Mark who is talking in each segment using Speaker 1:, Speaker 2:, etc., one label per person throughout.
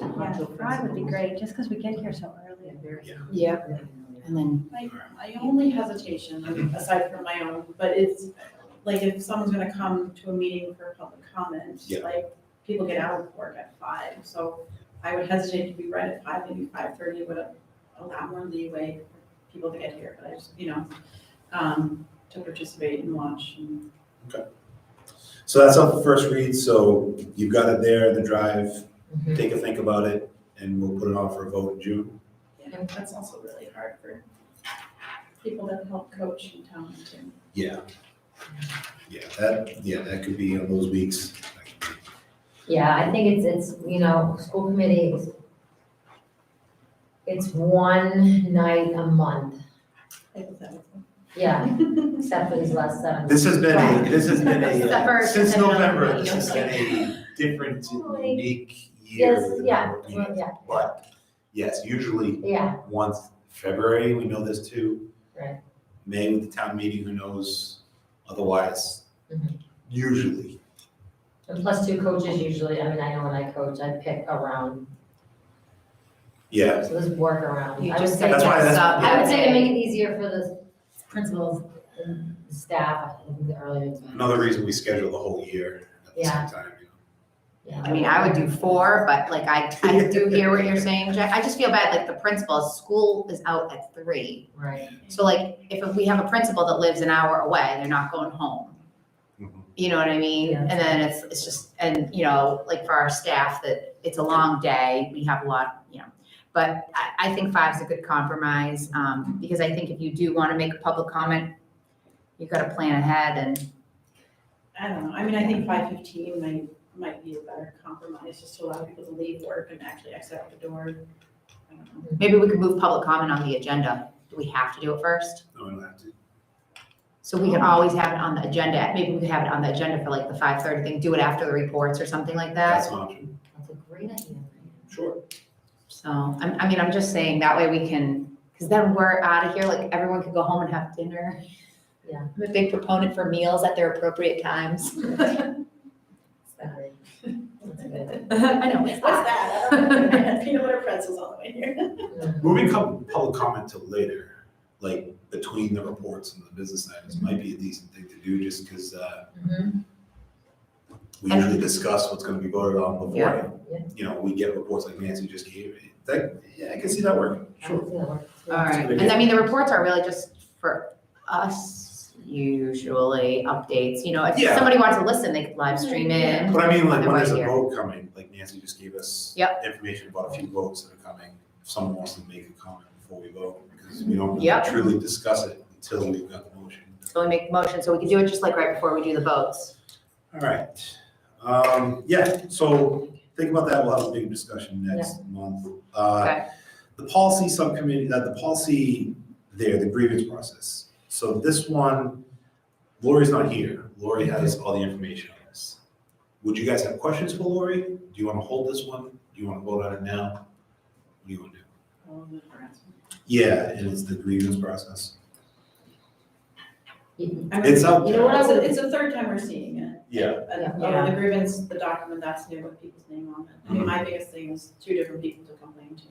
Speaker 1: Yeah,
Speaker 2: Fundamental
Speaker 1: five would be
Speaker 2: principles.
Speaker 1: great, just because we get here so early.
Speaker 3: Yeah, and then,
Speaker 4: My, my only hesitation, aside from my own, but it's, like, if someone's gonna come to a meeting for public comment,
Speaker 5: Yeah.
Speaker 4: like, people get out of work at five, so I would hesitate to be right at five, maybe five thirty would allow more leeway for people to get here, but I just, you know, um, to participate and watch and.
Speaker 5: So that's up for first read, so you've got it there, the drive, take a think about it, and we'll put it on for a vote in June.
Speaker 4: Yeah, that's also really hard for people that help coach in town too.
Speaker 5: Yeah. Yeah, that, yeah, that could be on those weeks.
Speaker 6: Yeah, I think it's, it's, you know, school committee is, it's one night a month,
Speaker 4: hypothetically.
Speaker 6: yeah, except for these last seven.
Speaker 5: This has been, a this has been a,
Speaker 6: Except
Speaker 5: uh,
Speaker 6: for-
Speaker 5: since
Speaker 6: and then
Speaker 5: November,
Speaker 6: I'm-
Speaker 5: this has been a different,
Speaker 6: Totally.
Speaker 5: unique year.
Speaker 6: Yes,
Speaker 5: with
Speaker 6: yeah,
Speaker 5: our meetings.
Speaker 6: well, yeah,
Speaker 5: But, yes, usually
Speaker 6: yeah,
Speaker 5: once February, we know this too.
Speaker 6: Right.
Speaker 5: May with the town meeting, who knows, otherwise,
Speaker 6: Mhm.
Speaker 5: usually.
Speaker 6: and plus two coaches usually, I mean, I know when I coach, I pick around,
Speaker 5: Yeah,
Speaker 6: so this work around.
Speaker 3: You
Speaker 6: I would
Speaker 3: just
Speaker 6: say
Speaker 5: That's why
Speaker 6: that-
Speaker 5: that's-
Speaker 3: up.
Speaker 6: I would say to make it easier for the principals and staff, I think the earlier. the better.
Speaker 5: another reason we schedule the whole year at the
Speaker 6: Yeah.
Speaker 5: same time, you know.
Speaker 6: Yeah.
Speaker 3: I mean, I would do four, but like I, I do hear what you're saying, Jack. I just feel bad, like the principal, school is out at three.
Speaker 6: Right,
Speaker 3: So like, if we have a principal that lives an hour away, they're not going home.
Speaker 5: Mhm.
Speaker 3: You know what I mean?
Speaker 6: Yeah.
Speaker 3: And then it's, it's just, and you know, like for our staff, that it's a long day, we have a lot, you know. But I, I think five's a good compromise, um, because I think if you do wanna make a public comment, you gotta plan ahead and,
Speaker 4: I don't know, I mean, I think five fifteen might, might be a better compromise, just to allow people to leave work and actually exit out the door. I don't know.
Speaker 3: maybe we could move public comment on the agenda. Do we have to do it first?
Speaker 5: No, we don't have to.
Speaker 3: So we can always have it on the agenda, maybe we could have it on the agenda for like the five thirty thing, do it after the reports or something like that.
Speaker 5: That's an option.
Speaker 6: that's a great idea.
Speaker 5: Sure.
Speaker 3: So, I'm, I mean, I'm just saying that way we can, cause then we're out of here, like everyone could go home and have dinner.
Speaker 6: Yeah.
Speaker 3: I'm a big proponent for meals at their appropriate times.
Speaker 6: Sorry. That's a good idea.
Speaker 3: I know.
Speaker 4: What's that? I don't know. Peanut butter pretzels all the way here.
Speaker 5: Moving com- public comment to later, like between the reports and the business items, might be a decent thing to do, just because, uh,
Speaker 6: Mhm.
Speaker 5: we
Speaker 3: And-
Speaker 5: usually discuss what's gonna be voted on
Speaker 3: Yeah.
Speaker 5: before.
Speaker 6: Yeah.
Speaker 5: You know, we get reports like Nancy just gave, that, yeah, I can see that working,
Speaker 6: I
Speaker 5: sure.
Speaker 6: can see that work.
Speaker 3: All right, and I mean, the reports are really just for us usually updates, you know, if
Speaker 5: Yeah.
Speaker 3: somebody wants to listen, they could live stream it.
Speaker 5: But I mean, like, when
Speaker 3: Otherwise
Speaker 5: there's a
Speaker 3: here.
Speaker 5: vote coming, like Nancy just gave us
Speaker 3: Yep.
Speaker 5: information about a few votes that are coming. If someone wants to make a comment before we vote, because we don't
Speaker 3: Yep.
Speaker 5: truly discuss it until we've got the motion.
Speaker 3: So we make the motion, so we can do it just like right before we do the votes.
Speaker 5: All right, um, yeah, so think about that, we'll have a big discussion next month. Uh,
Speaker 3: Okay.
Speaker 5: The policy subcommittee, uh, the policy there, the grievance process. So this one, Lori's not here, Lori
Speaker 3: Mm-hmm.
Speaker 5: has all the information on this. Would you guys have questions for Lori? Do you wanna hold this one? Do you wanna vote on it now? What do you wanna do? Yeah, and it's the grievance process.
Speaker 6: You-
Speaker 4: I mean,
Speaker 5: It's up
Speaker 6: You know what I
Speaker 5: there,
Speaker 4: It's a,
Speaker 6: would,
Speaker 4: it's the third time we're seeing it.
Speaker 5: yeah,
Speaker 4: Uh,
Speaker 6: Yeah.
Speaker 4: Oh, the grievance, the document that's new with people's name on it. I mean, my biggest thing is two different people to complain to.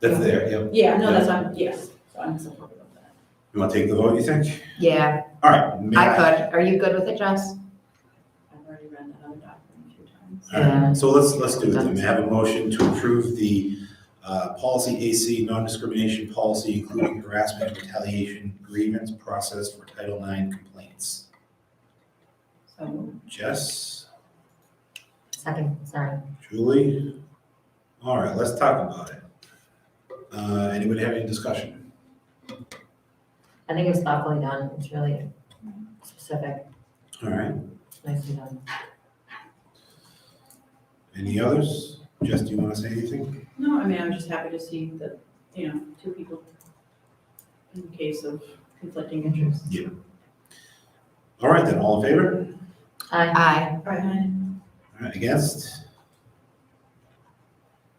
Speaker 5: that's there, yeah.
Speaker 4: Yeah, no, that's, I'm, yes, so I'm supportive of that.
Speaker 5: You wanna take the vote, you think?
Speaker 3: Yeah,
Speaker 5: All right. may
Speaker 3: I could. Are you good with it, Jess?
Speaker 4: I've already read that other document a few times.
Speaker 5: All right, so let's, let's do it then. May I have a motion to approve the uh, policy AC, non-discrimination policy, including harassment, retaliation, grievance process for Title IX complaints?
Speaker 4: So,
Speaker 5: Jess,
Speaker 6: second, sorry.
Speaker 5: Julie? All right, let's talk about it. Uh, Anybody have any discussion?
Speaker 6: I think it was thoughtfully done. It's really specific,
Speaker 5: All right,
Speaker 6: It's nicely done.
Speaker 5: any others? Jess, do you want to say anything?
Speaker 4: no, I mean, I'm just happy to see that, you know, two people in case of conflicting interests.
Speaker 5: All right, then, all in favor?
Speaker 6: I,
Speaker 3: Aye.
Speaker 4: Right.
Speaker 5: All right, against?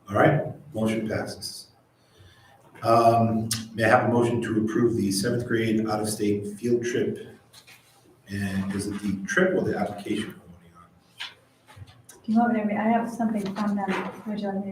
Speaker 5: All right, motion passes. Um, may I have a motion to approve the seventh grade out-of-state field trip? And is it the trip or the application? we're voting on?
Speaker 1: Do you want me to, re- I have something from them, would you like me to